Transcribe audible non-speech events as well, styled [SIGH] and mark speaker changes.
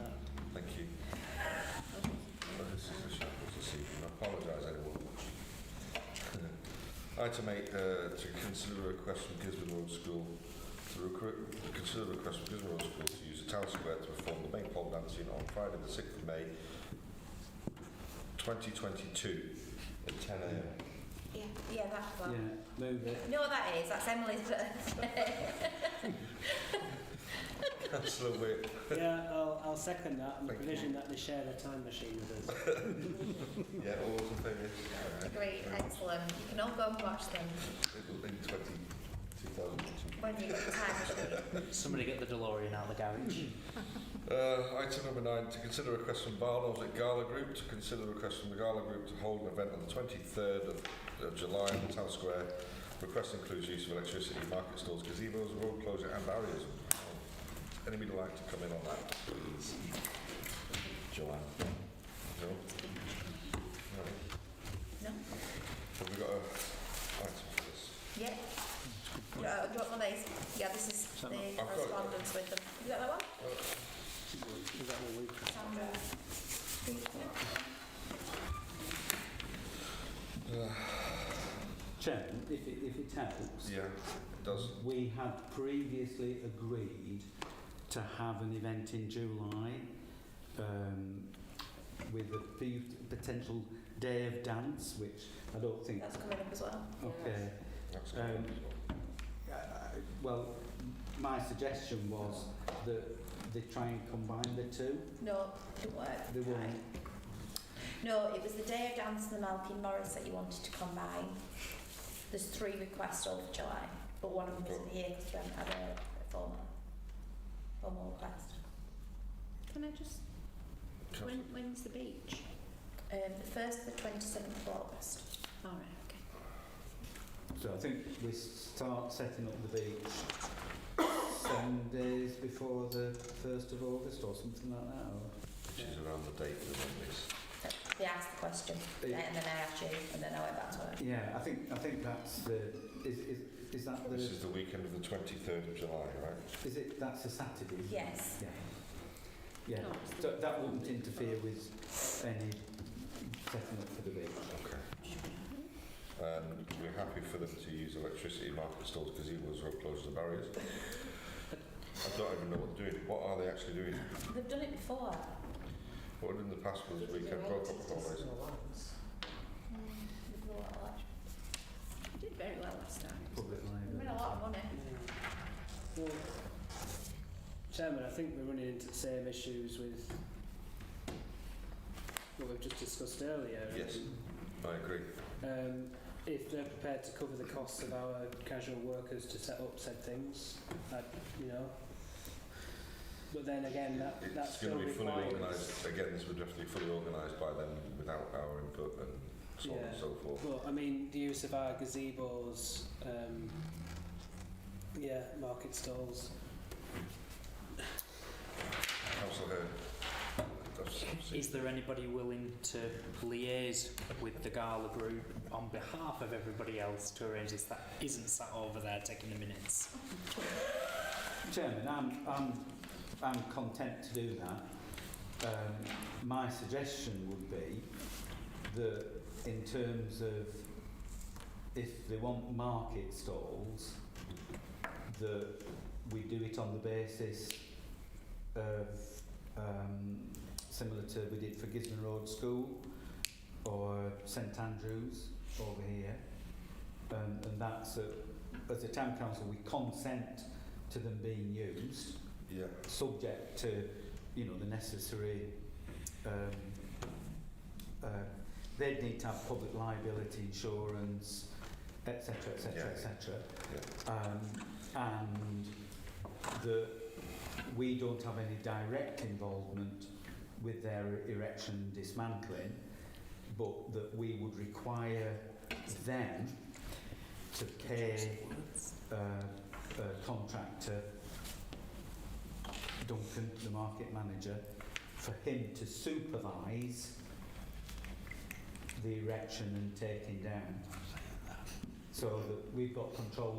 Speaker 1: [LAUGHS] Item eight, uh, to consider a request from Gisborne Road School to recruit, consider a request from Gisborne Road School to use the town square to perform the main pole dancing on Friday the sixth of May, twenty twenty-two, at ten AM.
Speaker 2: Yeah, yeah, that
Speaker 3: Yeah,
Speaker 2: one.
Speaker 3: move it.
Speaker 2: You know what that is? That's Emily's birthday. [LAUGHS]
Speaker 1: Councillor Wick,
Speaker 3: [LAUGHS] Yeah, I'll, I'll second that on the
Speaker 1: Thank you.
Speaker 3: provision that they share their time machine with us.
Speaker 1: yeah, all those in favour? Aye.
Speaker 2: Great, excellent. You can all go and watch them
Speaker 1: It'll be twenty, two thousand two.
Speaker 2: when you get the time machine.
Speaker 4: [LAUGHS] Somebody get the DeLorean out of the
Speaker 3: [CLEARS THROAT]
Speaker 4: garage.
Speaker 1: Uh, item number nine, to consider a request from Barnum's at Gala Group, to consider a request from the Gala Group to hold an event on the 23rd of, of July in the town square. Request includes use of electricity, market stalls, gazebos, road closure and barriers. Anybody like to come in on that, please? Joanne? No? No.
Speaker 2: No?
Speaker 1: Have we got a item for this?
Speaker 2: Yeah. Uh, do you want one of these? Yeah, this is the
Speaker 1: I've got it.
Speaker 2: correspondence with them. You got that one?
Speaker 3: Is that what we
Speaker 2: Sandra.
Speaker 3: Chairman, if it, if it helps,
Speaker 1: Yeah, it does.
Speaker 3: we had previously agreed to have an event in July um, with a few potential day of dance, which I don't think.
Speaker 2: That's coming up as well.
Speaker 3: Okay.
Speaker 1: That's
Speaker 3: Um,
Speaker 1: good.
Speaker 3: I- I- Uh, Well, my suggestion was that they try and combine the two.
Speaker 2: No, it didn't work.
Speaker 3: They
Speaker 2: Right.
Speaker 3: won't.
Speaker 2: No, it was the day of dance and the Malkin Morris that you wanted to combine. There's three requests all for July, but one of them isn't here because we haven't had a a formal, formal request.
Speaker 5: Can I just,
Speaker 1: Sure.
Speaker 5: when, when's the beach?
Speaker 2: Um, the first, the 27th of August.
Speaker 5: All right, okay.
Speaker 3: So I think we start setting up the beach seven days before the 1st of August or something like that. Or
Speaker 1: She's around the date of the this.
Speaker 2: They asked the question,
Speaker 3: Yeah.
Speaker 2: and then I asked you, and then I went back to her.
Speaker 3: yeah, I think I think that's the is is is that the
Speaker 1: This is the weekend of the 23rd of July, right?
Speaker 3: is it that's a Saturday. isn't it?
Speaker 2: Yes.
Speaker 3: Yeah. Yeah.
Speaker 5: No, it's the-
Speaker 3: So that wouldn't interfere with any setting up for the beach.
Speaker 1: Okay. Um, we're happy for them to use electricity market stalls because he was road closed the barriers. I don't even know what they're doing. What are they actually doing?
Speaker 2: They've done it before.
Speaker 1: What in the past was weekend road holidays?
Speaker 2: They've done a lot of that.
Speaker 5: You Mm. did very well last time.
Speaker 3: Public
Speaker 2: They've made a
Speaker 3: library.
Speaker 2: lot of money.
Speaker 6: Well, Chairman, I think we're running into the same issues with what we've just discussed earlier.
Speaker 1: Yes. I agree.
Speaker 6: Um, if they're prepared to cover the costs of our casual workers to set up said things, that, you know. But then again, that, that
Speaker 1: It's
Speaker 6: still
Speaker 1: going to be fully
Speaker 6: requires.
Speaker 1: organised. Again, this would have to be fully organised by them without our input and so on and
Speaker 6: Yeah.
Speaker 1: so forth.
Speaker 6: Well, I mean, the use of our gazebos, um, yeah, market stalls.
Speaker 1: Councillor Hearn. That's- that's it.
Speaker 4: Is there anybody willing to liaise with the gala group on behalf of everybody else to arrange this that isn't sat over there taking the minutes?
Speaker 3: Chairman, I'm, I'm, I'm content to do that. Um, my suggestion would be that in terms of if they want market stalls, that we do it on the basis of um, similar to we did for Gisborne Road School or St Andrews over here. Um, and that's a, as a town council, we consent to them being used,
Speaker 1: Yeah.
Speaker 3: subject to, you know, the necessary, um, uh, they'd need to have public liability insurance, et cetera, et cetera, et
Speaker 1: Yeah.
Speaker 3: cetera. Um, and that we don't have any direct involvement with their erection and dismantling, but that we would require them to pay uh, uh, contractor, Duncan, the market manager, for him to supervise the erection and taking down. So that we've got control